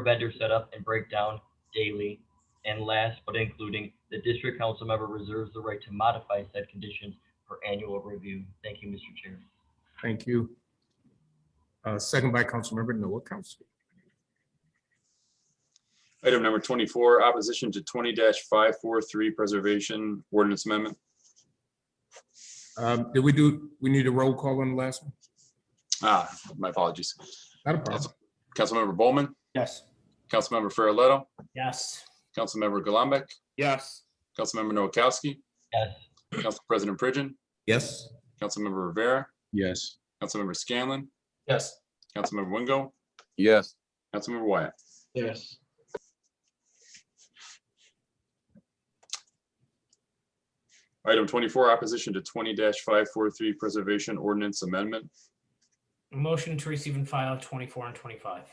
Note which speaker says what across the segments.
Speaker 1: vendor setup and breakdown daily. And last, but including, the district council member reserves the right to modify said conditions for annual review. Thank you, Mr. Chair.
Speaker 2: Thank you. Uh, Second by Councilmember Noah Kowski.
Speaker 3: Item number twenty-four, opposition to twenty five four three preservation ordinance amendment.
Speaker 2: Um, Did we do, we need a roll call on the last one?
Speaker 3: Ah, my apologies.
Speaker 2: Not a problem.
Speaker 3: Councilmember Bowman,
Speaker 4: Yes.
Speaker 3: Councilmember Farrelletto,
Speaker 4: Yes.
Speaker 3: Councilmember Gullumbeck,
Speaker 4: Yes.
Speaker 3: Councilmember Noakowski,
Speaker 1: Yes,
Speaker 3: Council President Pridgen,
Speaker 2: Yes.
Speaker 3: Councilmember Rivera,
Speaker 5: Yes.
Speaker 3: Councilmember Scanlon,
Speaker 4: Yes.
Speaker 3: Councilmember Wingo,
Speaker 5: Yes.
Speaker 3: Councilmember Wyatt.
Speaker 4: Yes.
Speaker 3: Item twenty-four, opposition to twenty five four three preservation ordinance amendment.
Speaker 6: Motion to receive and file twenty-four and twenty-five.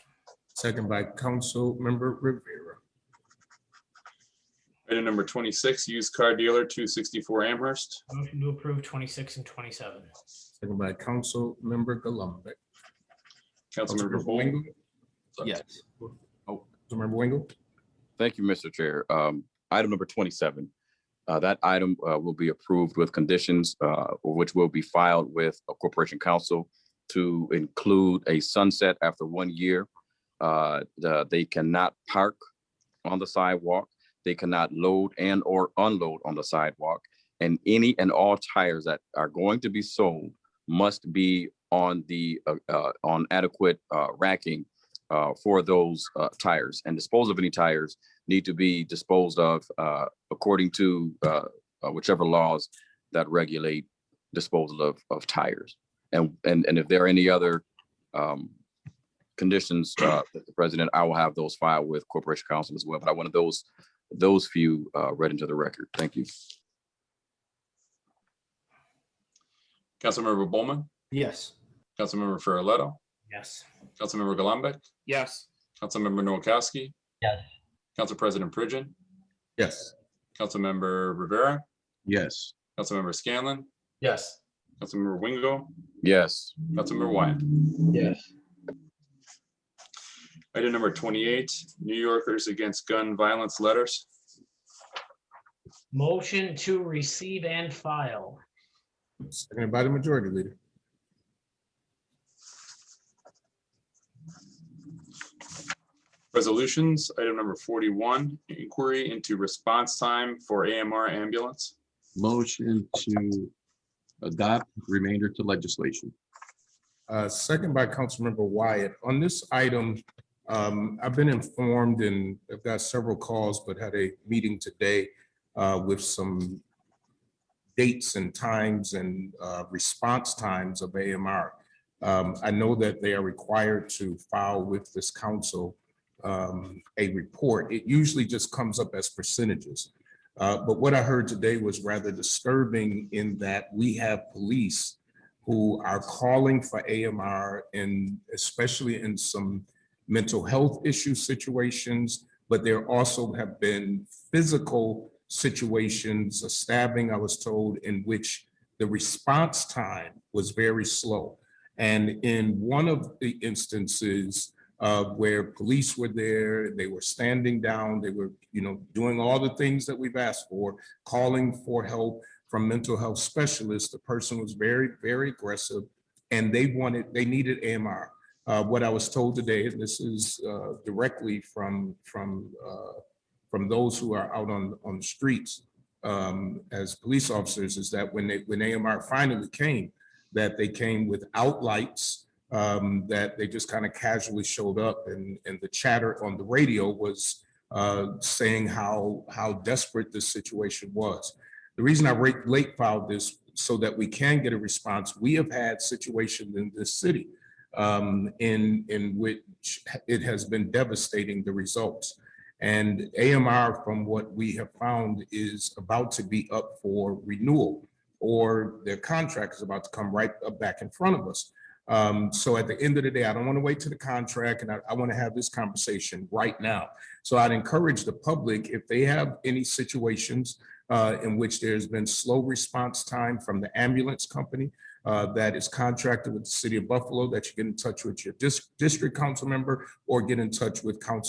Speaker 2: Second by Councilmember Rivera.
Speaker 3: Item number twenty-six, used car dealer two sixty-four Amherst.
Speaker 6: Motion to approve twenty-six and twenty-seven.
Speaker 2: Second by Councilmember Gullumbeck.
Speaker 3: Councilmember Bowman.
Speaker 5: Yes.
Speaker 2: Councilmember Wingo?
Speaker 5: Thank you, Mr. Chair. Um, Item number twenty-seven. Uh, That item uh, will be approved with conditions, uh, which will be filed with a Corporation Council to include a sunset after one year. Uh, the- They cannot park on the sidewalk. They cannot load and or unload on the sidewalk. And any and all tires that are going to be sold must be on the, uh, uh, on adequate uh, racking uh, for those uh, tires and dispose of any tires need to be disposed of uh, according to uh, uh, whichever laws that regulate disposal of, of tires. And, and, and if there are any other um, conditions, uh, that the president, I will have those filed with corporation counsel as well. But I wanted those, those few uh, read into the record. Thank you.
Speaker 3: Councilmember Bowman,
Speaker 4: Yes.
Speaker 3: Councilmember Farrelletto,
Speaker 6: Yes.
Speaker 3: Councilmember Gullumbeck,
Speaker 4: Yes.
Speaker 3: Councilmember Noakowski,
Speaker 1: yes,
Speaker 3: Council President Pridgen,
Speaker 2: Yes.
Speaker 3: Councilmember Rivera,
Speaker 5: Yes.
Speaker 3: Councilmember Scanlon,
Speaker 4: Yes.
Speaker 3: Councilmember Wingo,
Speaker 5: Yes.
Speaker 3: Councilmember Wyatt.
Speaker 4: Yes.
Speaker 3: Item number twenty-eight, New Yorkers Against Gun Violence Letters.
Speaker 6: Motion to receive and file.
Speaker 2: Seconded by the Majority Leader.
Speaker 3: Resolutions, item number forty-one, inquiry into response time for AMR ambulance.
Speaker 7: Motion to adopt remainder to legislation.
Speaker 2: Uh, Second by Councilmember Wyatt. On this item, um, I've been informed and I've got several calls, but had a meeting today uh, with some dates and times and uh, response times of AMR. Um, I know that they are required to file with this council um, a report. It usually just comes up as percentages. Uh, But what I heard today was rather disturbing in that we have police who are calling for AMR and especially in some mental health issue situations, but there also have been physical situations, a stabbing, I was told, in which the response time was very slow. And in one of the instances uh, where police were there, they were standing down, they were, you know, doing all the things that we've asked for, calling for help, from mental health specialists. The person was very, very aggressive and they wanted, they needed AMR. Uh, what I was told today, and this is, uh, directly from, from, uh, from those who are out on, on the streets, um, as police officers is that when they, when AMR finally came, that they came without lights, um, that they just kind of casually showed up and, and the chatter on the radio was, uh, saying how, how desperate this situation was. The reason I rate late filed this so that we can get a response, we have had situations in this city um, in, in which it has been devastating, the results. And AMR, from what we have found, is about to be up for renewal, or their contract is about to come right up back in front of us. Um, So at the end of the day, I don't want to wait to the contract, and I, I want to have this conversation right now. So I'd encourage the public, if they have any situations uh, in which there's been slow response time from the ambulance company uh, that is contracted with the city of Buffalo, that you get in touch with your dis- district council member or get in touch with council